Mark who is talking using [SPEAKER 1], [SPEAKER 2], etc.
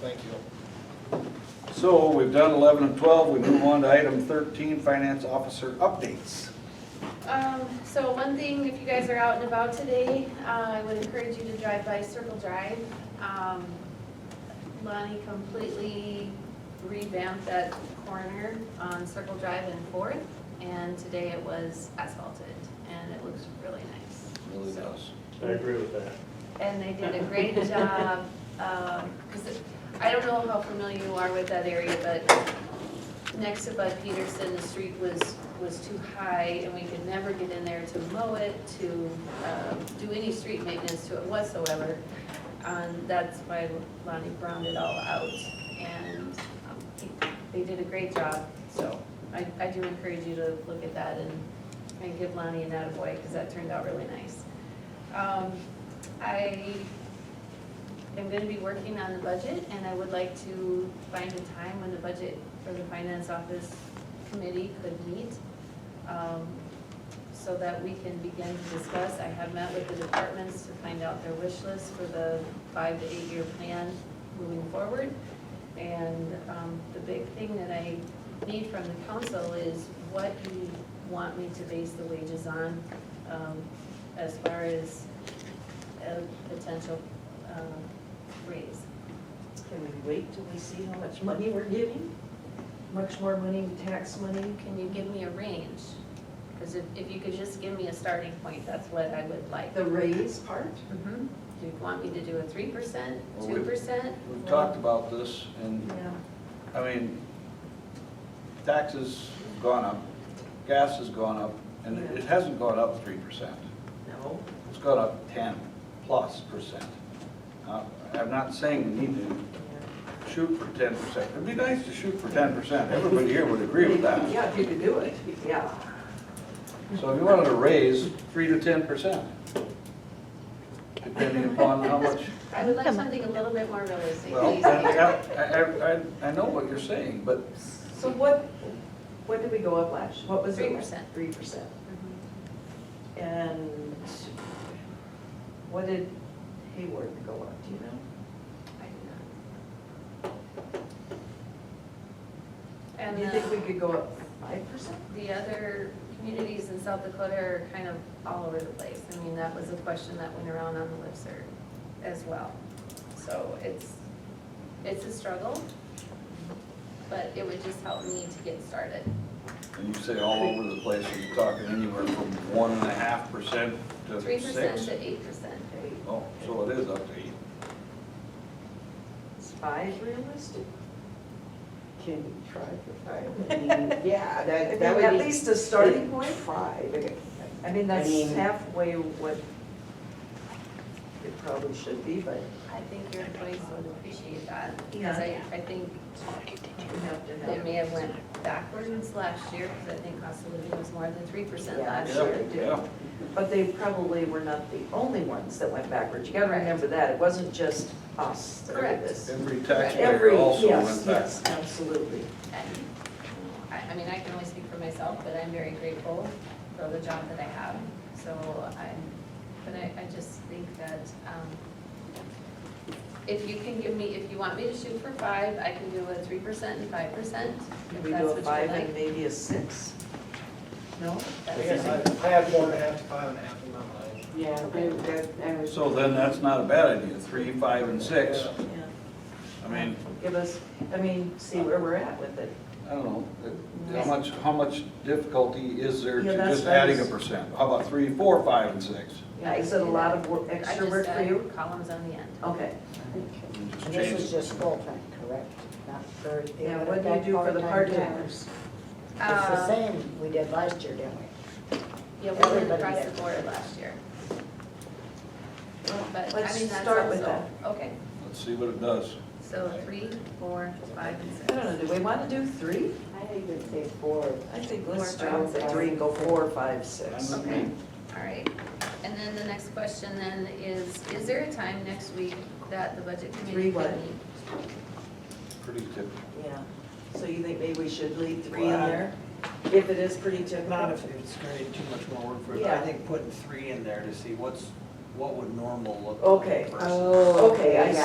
[SPEAKER 1] Thank you.
[SPEAKER 2] So we've done 11 and 12, we move on to item 13, finance officer updates.
[SPEAKER 3] Um, so one thing, if you guys are out and about today, uh, I would encourage you to drive by Circle Drive. Um, Lonnie completely revamped that corner on Circle Drive and Fourth, and today it was asphalted, and it looks really nice.
[SPEAKER 2] Really
[SPEAKER 3] So-
[SPEAKER 2] does.
[SPEAKER 4] I agree with that.
[SPEAKER 3] And they did a great job, because I don't know how familiar you are with that area, but next to Bud Peterson, the street was, was too high, and we could never get in there to mow it, to um, do any street maintenance to it whatsoever. And that's why Lonnie browned it all out, and um, they- they did a great job. So I, I do encourage you to look at that and, and give Lonnie an attaboy, because that turned out really nice. Um, I am gonna be working on the budget, and I would like to find a time when the budget for the finance office committee could meet, um, so that we can begin to discuss. I have met with the departments to find out their wish list for the five to eight-year plan moving forward. And um, the big thing that I need from the council is what you want me to base the wages on um, as far as a potential um, raise.
[SPEAKER 5] Can we wait till we see how much money we're giving? Much more money, tax money?
[SPEAKER 3] Can you give me a range? Because if, if you could just give me a starting point, that's what I would like.
[SPEAKER 5] The raise part?
[SPEAKER 3] Mhm. Do you want me to do a three percent,
[SPEAKER 2] Well, we-
[SPEAKER 3] two percent?
[SPEAKER 2] We've talked about this, and,
[SPEAKER 5] Yeah.
[SPEAKER 2] I mean, taxes have gone up, gas has gone up, and it it hasn't gone up 3%.
[SPEAKER 5] No.
[SPEAKER 2] It's gone up 10 plus percent. Uh, I'm not saying we need to shoot for 10%. It'd be nice to shoot for 10%. Everybody here would agree with that.
[SPEAKER 5] Yeah, if you could do it, yeah.
[SPEAKER 2] So if you wanted to raise three to ten percent, depending upon how much.
[SPEAKER 3] I would like something a little bit more realistic,
[SPEAKER 2] Well,
[SPEAKER 3] please.
[SPEAKER 2] I, I, I- I know what you're saying, but
[SPEAKER 5] So what, what did we go up last? What was it?
[SPEAKER 3] 3%.
[SPEAKER 5] Three percent.
[SPEAKER 3] Mhm.
[SPEAKER 5] And what did Hayward go up, do you know?
[SPEAKER 3] I do not.
[SPEAKER 5] And
[SPEAKER 3] And
[SPEAKER 5] you think we
[SPEAKER 3] the,
[SPEAKER 5] could go up five percent?
[SPEAKER 3] the other communities in South Dakota are kind of all over the place. I mean, that was a question that went around on the listserv as well. So it's, it's a struggle, but it would just help me to get started.
[SPEAKER 2] when you say all over the place, you're talking anywhere from one and a half percent to
[SPEAKER 3] Three percent
[SPEAKER 2] six.
[SPEAKER 3] to eight percent.
[SPEAKER 2] Oh, so it is up to eight.
[SPEAKER 5] Is five realistic?
[SPEAKER 6] Can you try for five? I mean, Yeah,
[SPEAKER 5] I
[SPEAKER 6] that,
[SPEAKER 5] mean,
[SPEAKER 6] that would
[SPEAKER 5] at
[SPEAKER 6] be.
[SPEAKER 5] least a starting point?
[SPEAKER 6] Five. okay.
[SPEAKER 5] I mean, that's
[SPEAKER 6] I mean-
[SPEAKER 5] halfway what it probably should be, but
[SPEAKER 3] I think your employees would appreciate that, because I, I think
[SPEAKER 5] we have to
[SPEAKER 3] they
[SPEAKER 5] have.
[SPEAKER 3] may have went backwards last year, because I think cost of living was more than three percent
[SPEAKER 5] Yeah,
[SPEAKER 3] last
[SPEAKER 5] sure.
[SPEAKER 3] year.
[SPEAKER 5] they do.
[SPEAKER 2] Yeah,
[SPEAKER 5] But they probably were not the only ones that went backwards. You gotta
[SPEAKER 3] Correct.
[SPEAKER 5] remember that. It wasn't just us that did
[SPEAKER 3] Correct.
[SPEAKER 5] this.
[SPEAKER 2] Every
[SPEAKER 5] Every,
[SPEAKER 2] taxpayer also
[SPEAKER 5] yes,
[SPEAKER 2] went back.
[SPEAKER 5] yes, absolutely.
[SPEAKER 3] And, I, I mean, I can only speak for myself, but I'm very grateful for the job that I have. So I'm, but I, I just think that, um, if you can give me, if you want me to shoot for five, I can do a three percent and five percent,
[SPEAKER 5] Can
[SPEAKER 3] if
[SPEAKER 5] we
[SPEAKER 3] that's
[SPEAKER 5] do
[SPEAKER 3] what
[SPEAKER 5] a
[SPEAKER 3] you'd
[SPEAKER 5] five and
[SPEAKER 3] like.
[SPEAKER 5] maybe a six? No?
[SPEAKER 1] I
[SPEAKER 3] That's-
[SPEAKER 1] guess I I had four and a half to five and a half in my mind.
[SPEAKER 6] Yeah, that, that- that was.
[SPEAKER 2] So then that's not a bad idea, three, five, and six.
[SPEAKER 1] Yeah.
[SPEAKER 5] Yeah.
[SPEAKER 2] I mean,
[SPEAKER 5] Give us, I mean, see where we're at with it.
[SPEAKER 2] I don't know, it- how much, how much difficulty is there
[SPEAKER 5] Yeah,
[SPEAKER 2] to
[SPEAKER 5] that's
[SPEAKER 2] just adding a
[SPEAKER 5] nice.
[SPEAKER 2] percent? How about three, four, five, and six?
[SPEAKER 3] Yeah, I
[SPEAKER 5] Is
[SPEAKER 3] can
[SPEAKER 5] it a
[SPEAKER 3] do
[SPEAKER 5] lot
[SPEAKER 3] that.
[SPEAKER 5] of work,
[SPEAKER 3] I
[SPEAKER 5] extra
[SPEAKER 3] just
[SPEAKER 5] work for
[SPEAKER 3] add
[SPEAKER 5] you?
[SPEAKER 3] Columns on the end.
[SPEAKER 5] Okay.
[SPEAKER 6] Okay.
[SPEAKER 2] And just
[SPEAKER 6] And this
[SPEAKER 2] change
[SPEAKER 6] is
[SPEAKER 2] it.
[SPEAKER 6] just full-time, correct? Not for. they
[SPEAKER 5] Now,
[SPEAKER 6] would
[SPEAKER 5] what do you
[SPEAKER 6] affect
[SPEAKER 5] do for the Uh, part-timers?
[SPEAKER 6] part-timers? It's the same we did last year, didn't
[SPEAKER 3] Yeah,
[SPEAKER 6] we?
[SPEAKER 3] Uh, we went
[SPEAKER 6] Everybody
[SPEAKER 3] across the
[SPEAKER 6] did.
[SPEAKER 3] board last year. But, I
[SPEAKER 5] Let's
[SPEAKER 3] mean, that's
[SPEAKER 5] start with
[SPEAKER 3] also, okay,
[SPEAKER 2] Let's see what it does.
[SPEAKER 3] so three, four, five, and six.
[SPEAKER 5] I don't know, do we want to do three?
[SPEAKER 6] I even say four.
[SPEAKER 5] I think
[SPEAKER 3] Four,
[SPEAKER 5] let's start with
[SPEAKER 6] five,
[SPEAKER 5] three and go
[SPEAKER 6] six.
[SPEAKER 5] four, five, six.
[SPEAKER 2] I'm-
[SPEAKER 3] Okay, all right. And then the next question then is, is there a time next week that the budget committee
[SPEAKER 5] Three what?
[SPEAKER 3] can meet?
[SPEAKER 2] Pretty typical.
[SPEAKER 5] Yeah. So you think maybe we should leave three in
[SPEAKER 1] Well, I-
[SPEAKER 5] there? If it is pretty typical?
[SPEAKER 7] Not if it's creating too much more work for it, but I
[SPEAKER 5] Yeah.
[SPEAKER 7] think putting three in there to see what's, what would normal look like.
[SPEAKER 5] Okay.
[SPEAKER 7] versus-
[SPEAKER 6] Oh,
[SPEAKER 5] Okay, I
[SPEAKER 6] yeah.